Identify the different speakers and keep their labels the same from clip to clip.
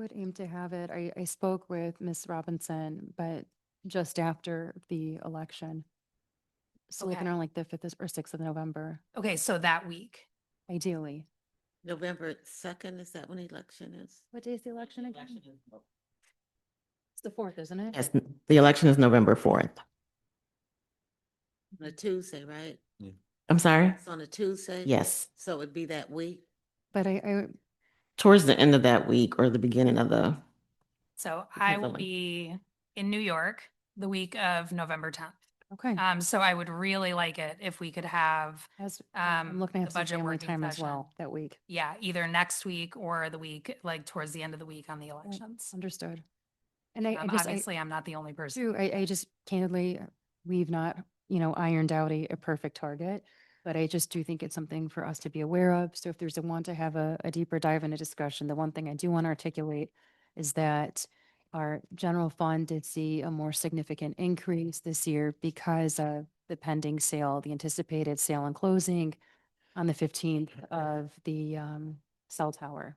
Speaker 1: Would aim to have it. I, I spoke with Ms. Robinson, but just after the election. So looking
Speaker 2: Okay.
Speaker 1: around like the fifth or sixth of November,
Speaker 2: Okay, so that week.
Speaker 1: ideally.
Speaker 3: November second, is that when election is?
Speaker 1: What day is the election again? It's the fourth, isn't it?
Speaker 4: Yes, the election is November fourth.
Speaker 3: On a Tuesday, right?
Speaker 4: I'm sorry?
Speaker 3: It's on a Tuesday?
Speaker 4: Yes,
Speaker 3: So it'd be that week?
Speaker 1: But I, I,
Speaker 4: towards the end of that week or the beginning of the,
Speaker 2: So
Speaker 4: Depends
Speaker 2: I
Speaker 4: on
Speaker 2: will
Speaker 4: when-
Speaker 2: be in New York the week of November tenth.
Speaker 1: okay.
Speaker 2: Um, so I would really like it if we could have,
Speaker 1: As, I'm
Speaker 2: um,
Speaker 1: looking
Speaker 2: the
Speaker 1: at some
Speaker 2: budget
Speaker 1: family
Speaker 2: working
Speaker 1: time as
Speaker 2: session.
Speaker 1: well that week.
Speaker 2: yeah, either next week or the week, like towards the end of the week on the elections.
Speaker 1: Understood. And I, I
Speaker 2: Um,
Speaker 1: guess I,
Speaker 2: Obviously, I'm not the only person.
Speaker 1: too, I, I just candidly, uh, we've not, you know, ironed out a, a perfect target. But I just do think it's something for us to be aware of. So if there's a want to have a, a deeper dive into discussion, the one thing I do want to articulate is that our general fund did see a more significant increase this year because of the pending sale, the anticipated sale and closing on the fifteenth of the, um, cell tower.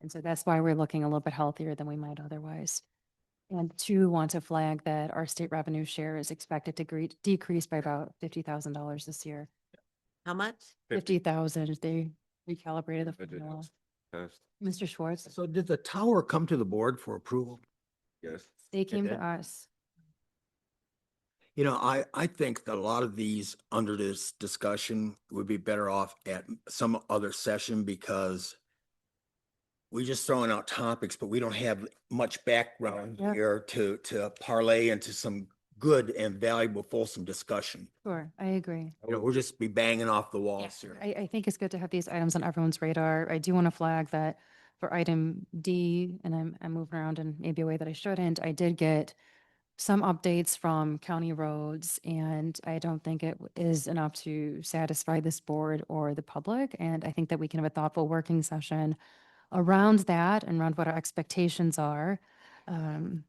Speaker 1: And so that's why we're looking a little bit healthier than we might otherwise. And two, want to flag that our state revenue share is expected to gre- decrease by about fifty thousand dollars this year.
Speaker 3: How much?
Speaker 1: Fifty thousand, they recalibrated the
Speaker 5: Budget
Speaker 1: formula.
Speaker 5: was passed.
Speaker 1: Mr. Schwartz,
Speaker 6: So did the tower come to the board for approval?
Speaker 5: Yes.
Speaker 1: they came to
Speaker 6: did.
Speaker 1: us.
Speaker 6: You know, I, I think that a lot of these under this discussion would be better off at some other session because we're just throwing out topics, but we don't have much background
Speaker 1: Yeah.
Speaker 6: here to, to parlay into some good and valuable fulsome discussion.
Speaker 1: Sure, I agree.
Speaker 6: You know, we'll just be banging off the walls here.
Speaker 1: I, I think it's good to have these items on everyone's radar. I do want to flag that for item D, and I'm, I'm moving around in maybe a way that I shouldn't, I did get some updates from county roads, and I don't think it w- is enough to satisfy this board or the public. And I think that we can have a thoughtful working session around that and around what our expectations are. Um,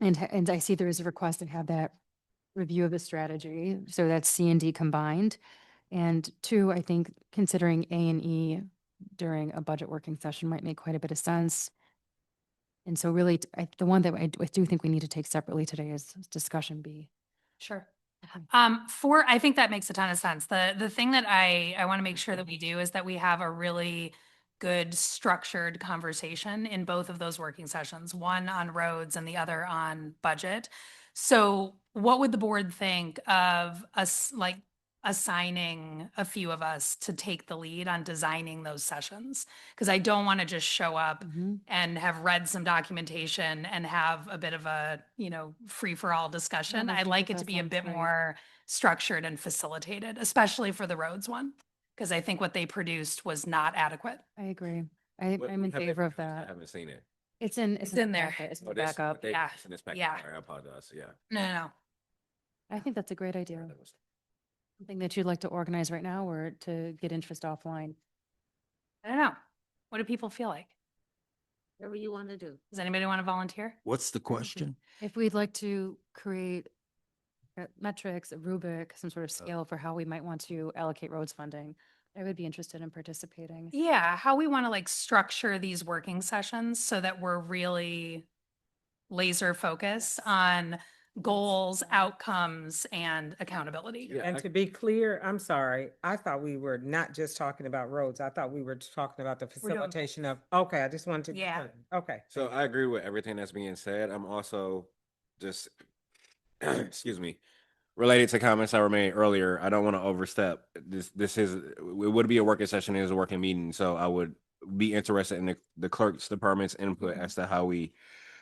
Speaker 1: And, ha- and I see there is a request to have that review of the strategy, so that's C and D combined. And two, I think considering A and E during a budget working session might make quite a bit of sense. And so really, t- I, the one that I d- I do think we need to take separately today is discussion B.
Speaker 2: Sure.
Speaker 1: Okay.
Speaker 2: Um, for, I think that makes a ton of sense. The, the thing that I, I want to make sure that we do is that we have a really good structured conversation in both of those working sessions, one on roads and the other on budget. So what would the board think of us, like assigning a few of us to take the lead on designing those sessions? Because I don't want to just show up
Speaker 1: Mm-hmm.
Speaker 2: and have read some documentation and have a bit of a, you know, free for all discussion.
Speaker 1: I
Speaker 2: I'd
Speaker 1: think
Speaker 2: like
Speaker 1: that
Speaker 2: it
Speaker 1: that
Speaker 2: to be a
Speaker 1: sounds
Speaker 2: bit
Speaker 1: great.
Speaker 2: more structured and facilitated, especially for the roads one. Because I think what they produced was not adequate.
Speaker 1: I agree. I,
Speaker 5: What-
Speaker 1: I'm in
Speaker 5: have it
Speaker 1: favor of
Speaker 5: produced? I
Speaker 1: that.
Speaker 5: haven't seen it.
Speaker 1: It's in,
Speaker 2: It's
Speaker 1: the
Speaker 2: in there.
Speaker 1: packet, It's in
Speaker 5: Oh,
Speaker 1: the
Speaker 5: this-
Speaker 1: backup.
Speaker 5: they
Speaker 2: Yeah.
Speaker 5: sent this back.
Speaker 2: Yeah.
Speaker 5: Sorry, I apologize, yeah.
Speaker 2: No, no, no.
Speaker 1: I think that's a great idea.
Speaker 5: That was-
Speaker 1: Something that you'd like to organize right now or to get interest offline.
Speaker 2: I don't know. What do people feel like?
Speaker 3: Whatever you want to do.
Speaker 2: Does anybody want to volunteer?
Speaker 6: What's the question?
Speaker 1: If we'd like to create uh, metrics, a rubric, some sort of scale for how we might want to allocate roads funding, I would be interested in participating.
Speaker 2: Yeah, how we want to like structure these working sessions so that we're really laser focused
Speaker 1: Yes.
Speaker 2: on goals,
Speaker 1: Yeah.
Speaker 2: outcomes and accountability.
Speaker 5: Yeah,
Speaker 7: And
Speaker 5: I-
Speaker 7: to be clear, I'm sorry, I thought we were not just talking about roads. I thought we were just talking about the
Speaker 2: We're doing-
Speaker 7: facilitation of, okay, I just wanted to.
Speaker 2: Yeah.
Speaker 7: Okay.
Speaker 5: So I agree with everything that's being said. I'm also just, excuse me, related to comments I were made earlier. I don't want to overstep. This, this is, it would be a working session, it is a working meeting. So I would be interested in the- the clerk's department's input
Speaker 1: Mm-hmm.
Speaker 5: as to how we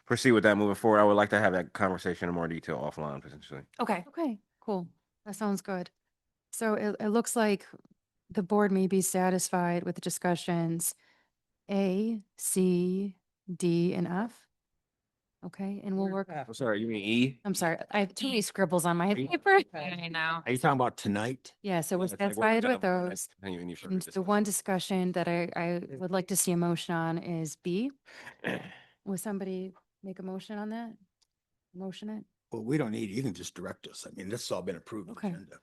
Speaker 5: proceed with that moving forward. I would like to have that conversation in more detail offline potentially.
Speaker 2: Okay.
Speaker 1: Okay, cool. That sounds good. So it, it looks like the board may be satisfied with the discussions A, C, D, and F. Okay, and we'll work,
Speaker 5: I'm sorry, you mean E?
Speaker 1: I'm sorry, I have too
Speaker 2: E.
Speaker 1: many scribbles on my
Speaker 5: E.
Speaker 1: paper.
Speaker 2: I know.
Speaker 6: Are you talking about tonight?
Speaker 1: Yeah, so we're
Speaker 5: It's like, we're
Speaker 1: satisfied
Speaker 5: done,
Speaker 1: with
Speaker 5: we're not
Speaker 1: those.
Speaker 5: continuing any further
Speaker 1: And The
Speaker 5: discussion.
Speaker 1: one discussion that I, I would like to see a motion on is B. Will somebody make a motion on that? Motion it?
Speaker 6: Well, we don't need, it. you can just direct us. I mean, this has all been approved.
Speaker 1: Okay.
Speaker 6: agenda.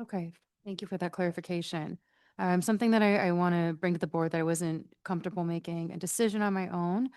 Speaker 1: Okay, thank you for that clarification. Um, something that I, I want to bring to the board that I wasn't comfortable making a decision on my own